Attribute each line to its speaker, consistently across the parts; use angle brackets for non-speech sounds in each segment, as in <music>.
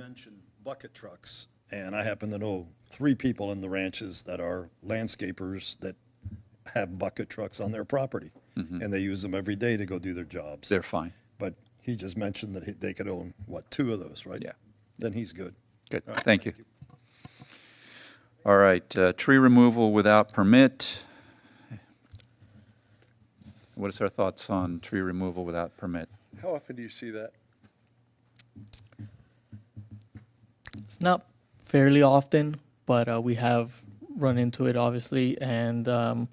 Speaker 1: mentioned bucket trucks, and I happen to know three people in the ranches that are landscapers that have bucket trucks on their property, and they use them every day to go do their jobs.
Speaker 2: They're fine.
Speaker 1: But he just mentioned that he- they could own, what, two of those, right?
Speaker 2: Yeah.
Speaker 1: Then he's good.
Speaker 2: Good, thank you. All right, uh, tree removal without permit. What is our thoughts on tree removal without permit?
Speaker 3: How often do you see that?
Speaker 4: It's not fairly often, but uh, we have run into it obviously, and um,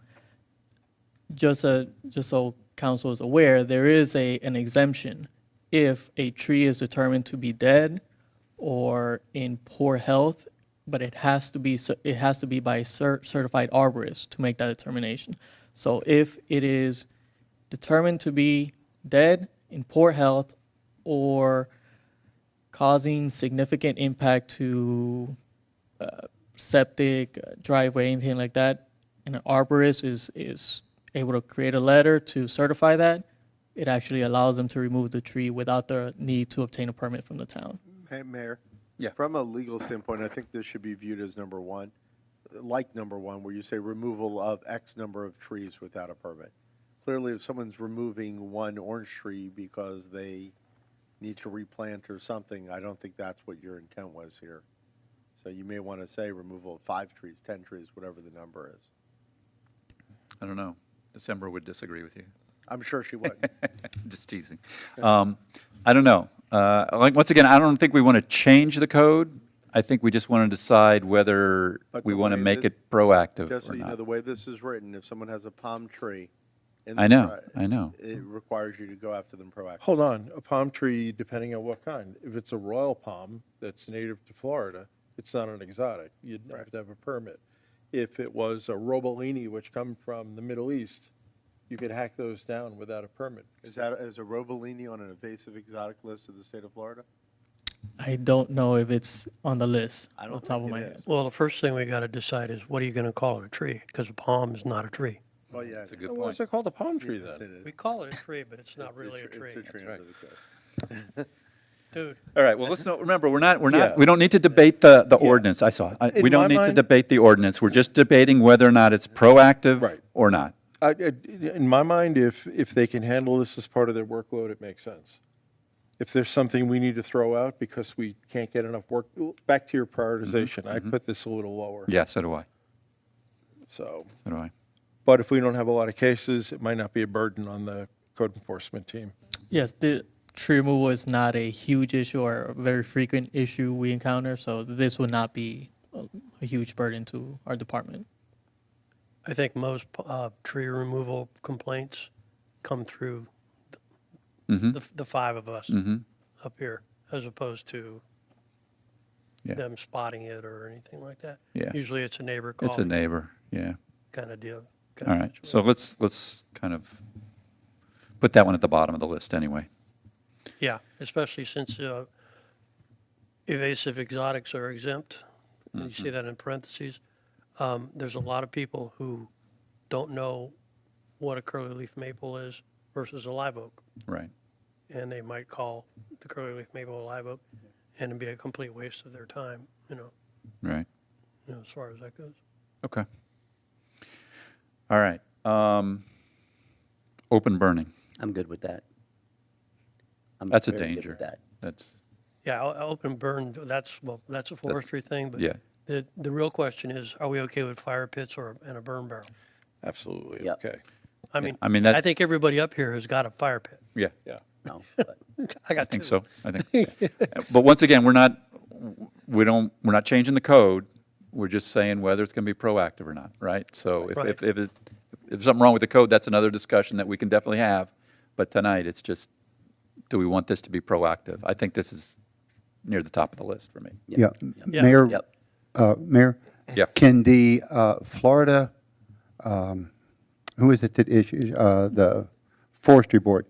Speaker 4: just uh just so council is aware, there is a an exemption if a tree is determined to be dead or in poor health, but it has to be cer- it has to be by a cer- certified arborist to make that determination. So if it is determined to be dead, in poor health, or causing significant impact to uh, septic, uh, driveway, anything like that, and an arborist is, is able to create a letter to certify that, it actually allows them to remove the tree without the need to obtain a permit from the town.
Speaker 3: Hey, Mayor?
Speaker 2: Yeah.
Speaker 3: From a legal standpoint, I think this should be viewed as number one, like number one, where you say removal of X number of trees without a permit. Clearly, if someone's removing one orange tree because they need to replant or something, I don't think that's what your intent was here. So you may want to say removal of five trees, 10 trees, whatever the number is.
Speaker 2: I don't know. December would disagree with you. <laughs>
Speaker 3: I'm sure she would.
Speaker 2: Just teasing. Um, I don't know. Uh, like, once again, I don't think we want to change the code. I think we just want to decide whether
Speaker 3: But
Speaker 2: we
Speaker 3: the
Speaker 2: want to
Speaker 3: way
Speaker 2: make
Speaker 3: that-
Speaker 2: it proactive
Speaker 3: Just
Speaker 2: <laughs>
Speaker 3: so
Speaker 2: or
Speaker 3: you know,
Speaker 2: not.
Speaker 3: the way this is written, if someone has a palm tree. in
Speaker 2: I
Speaker 3: the
Speaker 2: know,
Speaker 3: pri-
Speaker 2: I know.
Speaker 3: It requires you to go after them proactively.
Speaker 5: Hold on, a palm tree, depending on what kind. If it's a royal palm that's native to Florida, it's not an exotic. You'd have to have a permit. If it was a robolini, which come from the Middle East, you could hack those down without a permit.
Speaker 3: Is that, is a robolini on an invasive exotic list of the state of Florida?
Speaker 4: I don't know if it's on the list
Speaker 3: I
Speaker 4: on
Speaker 3: don't
Speaker 4: the top
Speaker 3: think
Speaker 4: of
Speaker 3: it
Speaker 4: my
Speaker 3: is.
Speaker 4: head.
Speaker 6: Well, the first thing we got to decide is what are you going to call it, a tree? Because a palm is not a tree.
Speaker 3: Well, Oh, yeah.
Speaker 2: That's a
Speaker 3: it
Speaker 2: good
Speaker 5: Well,
Speaker 2: point.
Speaker 5: What's it called, a palm
Speaker 3: is.
Speaker 5: tree
Speaker 3: Yes,
Speaker 5: then?
Speaker 3: it is.
Speaker 6: We call it a tree, but it's not
Speaker 3: It's
Speaker 6: really a
Speaker 3: tr-
Speaker 6: tree.
Speaker 3: It's a tree under the code.
Speaker 6: Dude,
Speaker 2: All right, well, let's not, remember, we're not, we're not,
Speaker 5: Yeah.
Speaker 2: we don't need to debate the, the ordinance, I saw. it. I- We
Speaker 5: In
Speaker 2: don't
Speaker 5: my
Speaker 2: need to
Speaker 5: mind-
Speaker 2: debate the ordinance, we're just debating whether or not it's proactive
Speaker 5: Right.
Speaker 2: or not.
Speaker 5: I, I- in my mind, if, if they can handle this as part of their workload, it makes sense. If there's something we need to throw out because we can't get enough work, back to your prioritization, I put this a little lower.
Speaker 2: Yeah, so do I,
Speaker 5: So.
Speaker 2: so do I.
Speaker 5: But if we don't have a lot of cases, it might not be a burden on the code enforcement team.
Speaker 4: Yes, the tree removal is not a huge issue or a very frequent issue we encounter, so this would not be a- a huge burden to our department.
Speaker 6: I think most uh, tree removal complaints come through the, the five of us up here, as opposed to
Speaker 2: Yeah.
Speaker 6: them spotting it or anything like that.
Speaker 2: Yeah.
Speaker 6: Usually it's a neighbor
Speaker 2: It's a
Speaker 6: calling,
Speaker 2: neighbor, yeah.
Speaker 6: kind of deal. kinda
Speaker 2: All right, so
Speaker 6: situation.
Speaker 2: let's, let's kind of put that one at the bottom of the list anyway.
Speaker 6: Yeah, especially since uh, invasive exotics are exempt. and You see that in parentheses. Um, There's a lot of people who don't know what a curly leaf maple is versus a live oak.
Speaker 2: Right,
Speaker 6: And they might call the curly leaf maple a live oak and it'd be a complete waste of their time, you know,
Speaker 2: right,
Speaker 6: you know, as far as that goes.
Speaker 2: okay. All right, um, open burning,
Speaker 7: I'm good with that. I'm
Speaker 2: that's a
Speaker 7: very good
Speaker 2: danger.
Speaker 7: with that.
Speaker 2: That's,
Speaker 6: Yeah, o- open burn, that's, well, that's a forestry thing, but
Speaker 2: yeah.
Speaker 6: the, the real question is, are we okay with fire pits or, and a burn barrel?
Speaker 5: Absolutely,
Speaker 7: Yep.
Speaker 5: okay,
Speaker 6: I mean,
Speaker 2: I mean,
Speaker 6: I
Speaker 2: that's-
Speaker 6: think everybody up here has got a fire pit.
Speaker 2: yeah.
Speaker 5: yeah.
Speaker 7: No, but
Speaker 6: I got
Speaker 2: I think
Speaker 6: two.
Speaker 2: so, I think. But once again, we're not, we don't, we're not changing the code. We're just saying whether it's going to be proactive or not, right? So if,
Speaker 6: Right.
Speaker 2: if, if, it- if there's something wrong with the code, that's another discussion that we can definitely have. But tonight, it's just, do we want this to be proactive? I think this is near the top of the list for me.
Speaker 8: Yeah,
Speaker 6: Yeah.
Speaker 8: Mayor,
Speaker 7: Yep.
Speaker 8: uh, Mayor?
Speaker 2: Yeah.
Speaker 8: Can the uh, Florida, um, who is it that issues, uh, the forestry board?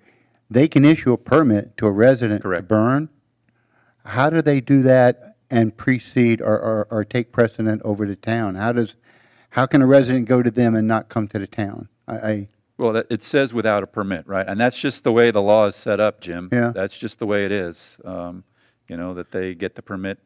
Speaker 8: They can issue a permit to a resident to
Speaker 2: Correct.
Speaker 8: burn? How do they do that and precede or, or, or take precedent over the town? How does, how can a resident go to them and not come to the town? I, I,
Speaker 2: Well, that- it says without a permit, right? And that's just the way the law is set up, Jim.
Speaker 8: Yeah.
Speaker 2: That's just the way it is, um, you know, that they get the permit